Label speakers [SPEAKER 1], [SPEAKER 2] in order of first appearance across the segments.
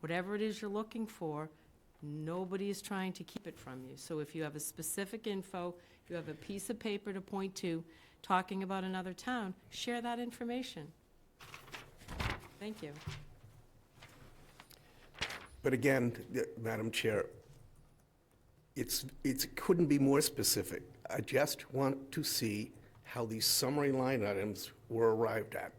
[SPEAKER 1] whatever it is you're looking for, nobody is trying to keep it from you. So if you have a specific info, you have a piece of paper to point to, talking about another town, share that information. Thank you.
[SPEAKER 2] But again, th- Madam Chair, it's, it couldn't be more specific. I just want to see how these summary line items were arrived at.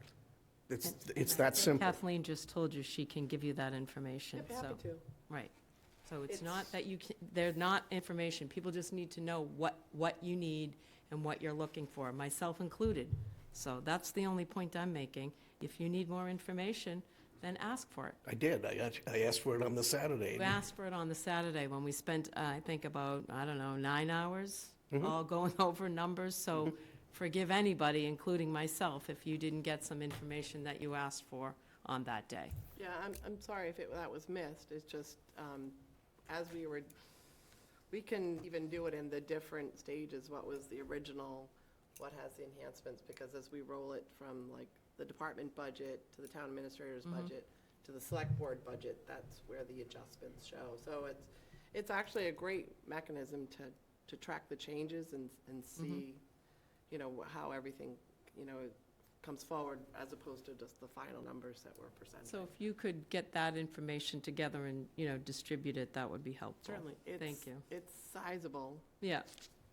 [SPEAKER 2] It's, it's that simple.
[SPEAKER 1] Kathleen just told you she can give you that information, so. Right. So it's not that you, can- they're not information. People just need to know what, what you need and what you're looking for, myself included. So that's the only point I'm making. If you need more information, then ask for it.
[SPEAKER 2] I did, I, act- I asked for it on the Saturday.
[SPEAKER 1] We asked for it on the Saturday when we spent, uh, I think, about, I don't know, nine hours,
[SPEAKER 2] Mm-hmm.
[SPEAKER 1] all going over numbers, so forgive anybody, including myself, if you didn't get some information that you asked for on that day.
[SPEAKER 3] Yeah, I'm, I'm sorry if it, that was missed, it's just, um, as we were, we can even do it in the different stages, what was the original, what has the enhancements, because as we roll it from like the department budget to the town administrator's budget to the select board budget, that's where the adjustments show. So it's, it's actually a great mechanism to, to track the changes and, and see, you know, how everything, you know, comes forward as opposed to just the final numbers that were presented.
[SPEAKER 1] So if you could get that information together and, you know, distribute it, that would be helpful.
[SPEAKER 3] Certainly. It's-
[SPEAKER 1] Thank you.
[SPEAKER 3] It's sizable.
[SPEAKER 1] Yeah,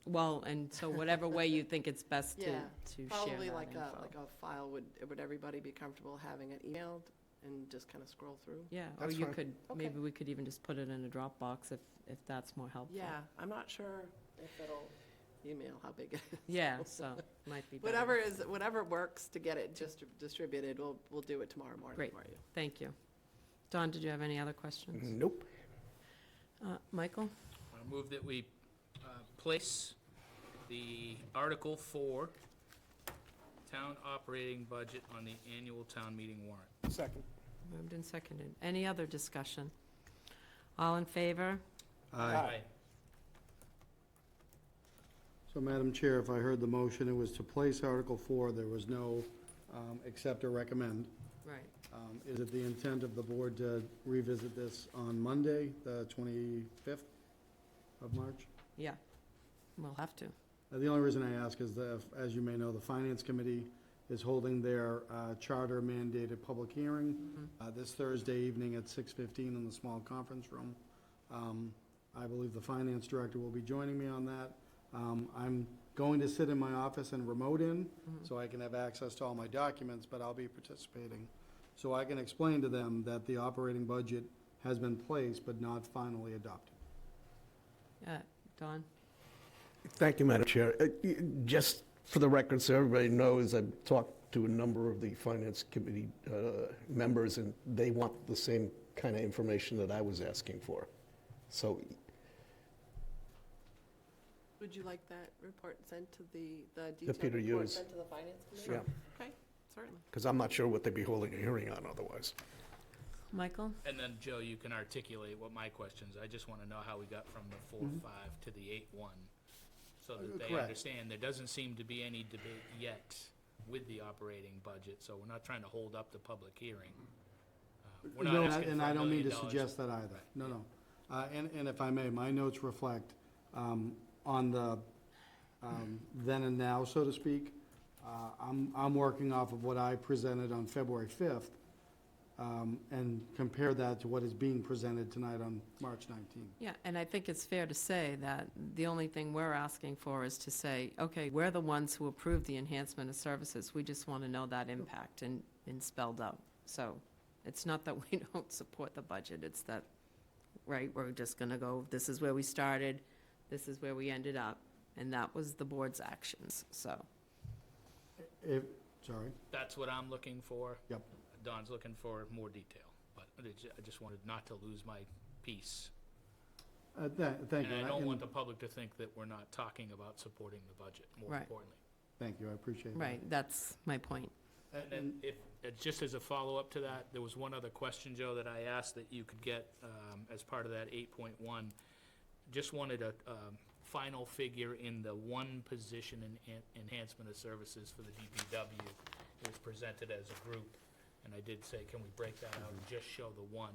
[SPEAKER 1] well, and so whatever way you think it's best to, to share
[SPEAKER 3] Yeah.
[SPEAKER 1] that
[SPEAKER 3] Probably like a,
[SPEAKER 1] info.
[SPEAKER 3] like a file, would, would everybody be comfortable having it emailed and just kind of scroll through?
[SPEAKER 1] Yeah, or
[SPEAKER 2] That's
[SPEAKER 1] you
[SPEAKER 2] fine.
[SPEAKER 1] could,
[SPEAKER 3] Okay.
[SPEAKER 1] maybe we could even just put it in a Dropbox if, if that's more helpful.
[SPEAKER 3] Yeah, I'm not sure if it'll, email how big it is.
[SPEAKER 1] Yeah, so, might be better.
[SPEAKER 3] Whatever is, whatever works to get it just distributed, we'll, we'll do it tomorrow morning
[SPEAKER 1] Great.
[SPEAKER 3] for you.
[SPEAKER 1] Thank you. Don, did you have any other questions?
[SPEAKER 2] Nope.
[SPEAKER 1] Uh, Michael?
[SPEAKER 4] I move that we uh, place the Article 4 Town Operating Budget on the annual town meeting warrant.
[SPEAKER 2] Second.
[SPEAKER 1] Moved and seconded. Any other discussion? All in favor?
[SPEAKER 4] Aye.
[SPEAKER 5] So, Madam Chair, if I heard the motion, it was to place Article 4, there was no um, accept or recommend.
[SPEAKER 1] Right.
[SPEAKER 5] Um, Is it the intent of the board to revisit this on Monday, the 25th of March?
[SPEAKER 1] Yeah, we'll have to.
[SPEAKER 5] Uh, The only reason I ask is that, as you may know, the Finance Committee is holding their uh, charter mandated public hearing uh, this Thursday evening at 6:15 in the small conference room. Um, I believe the Finance Director will be joining me on that. Um, I'm going to sit in my office and remote in, so I can have access to all my documents, but I'll be participating. So I can explain to them that the operating budget has been placed but not finally adopted.
[SPEAKER 1] Uh, Don?
[SPEAKER 2] Thank you, Madam Chair. Uh, y- Just for the record, so everybody knows, I've talked to a number of the Finance Committee uh, members, and they want the same kind of information that I was asking for. So
[SPEAKER 3] Would you like that report sent to the, the
[SPEAKER 2] Yeah,
[SPEAKER 3] detailed
[SPEAKER 2] uh, Peter,
[SPEAKER 3] report
[SPEAKER 2] yours.
[SPEAKER 3] sent to the finance committee?
[SPEAKER 2] Sure.
[SPEAKER 3] Okay, certainly.
[SPEAKER 2] Because I'm not sure what they'd be holding a hearing on otherwise.
[SPEAKER 1] Michael?
[SPEAKER 4] And then, Joe, you can articulate what my questions, I just want to know how we got from the 4-5 to the 8-1, so that they
[SPEAKER 5] Mm-hmm. Uh, Correct.
[SPEAKER 4] understand. There doesn't seem to be any debate yet with the operating budget, so we're not trying to hold up the public hearing. Uh, We're
[SPEAKER 5] No,
[SPEAKER 4] not asking
[SPEAKER 5] And
[SPEAKER 4] for a
[SPEAKER 5] I don't mean
[SPEAKER 4] million
[SPEAKER 5] to
[SPEAKER 4] dollars.
[SPEAKER 5] suggest that either. No, no. Uh, And, and if I may, my notes reflect um, on the um, then and now, so to speak. Uh, I'm, I'm working off of what I presented on February 5th um, and compare that to what is being presented tonight on March 19th.
[SPEAKER 1] Yeah, and I think it's fair to say that the only thing we're asking for is to say, okay, we're the ones who approved the enhancement of services. We just want to know that impact and, and spelled out. So it's not that we don't support the budget, it's that, right, we're just going to go, this is where we started, this is where we ended up, and that was the board's actions, so.
[SPEAKER 5] If, sorry,
[SPEAKER 4] That's what I'm looking for.
[SPEAKER 5] yep.
[SPEAKER 4] Don's looking for more detail, but I ju- I just wanted not to lose my piece.
[SPEAKER 5] Uh, tha- Thank
[SPEAKER 4] And
[SPEAKER 5] you.
[SPEAKER 4] I
[SPEAKER 5] and
[SPEAKER 4] don't
[SPEAKER 5] and
[SPEAKER 4] want the public to think that we're not talking about supporting the budget, more
[SPEAKER 1] Right.
[SPEAKER 4] importantly.
[SPEAKER 5] Thank you, I appreciate that.
[SPEAKER 1] Right, that's my point.
[SPEAKER 4] And then if, uh, just as a follow-up to that, there was one other question, Joe, that I asked that you could get um, as part of that 8.1. Just wanted a um, final figure in the one position in en- enhancement of services for the DPW. It was presented as a group, and I did say, can we break that out and just show the one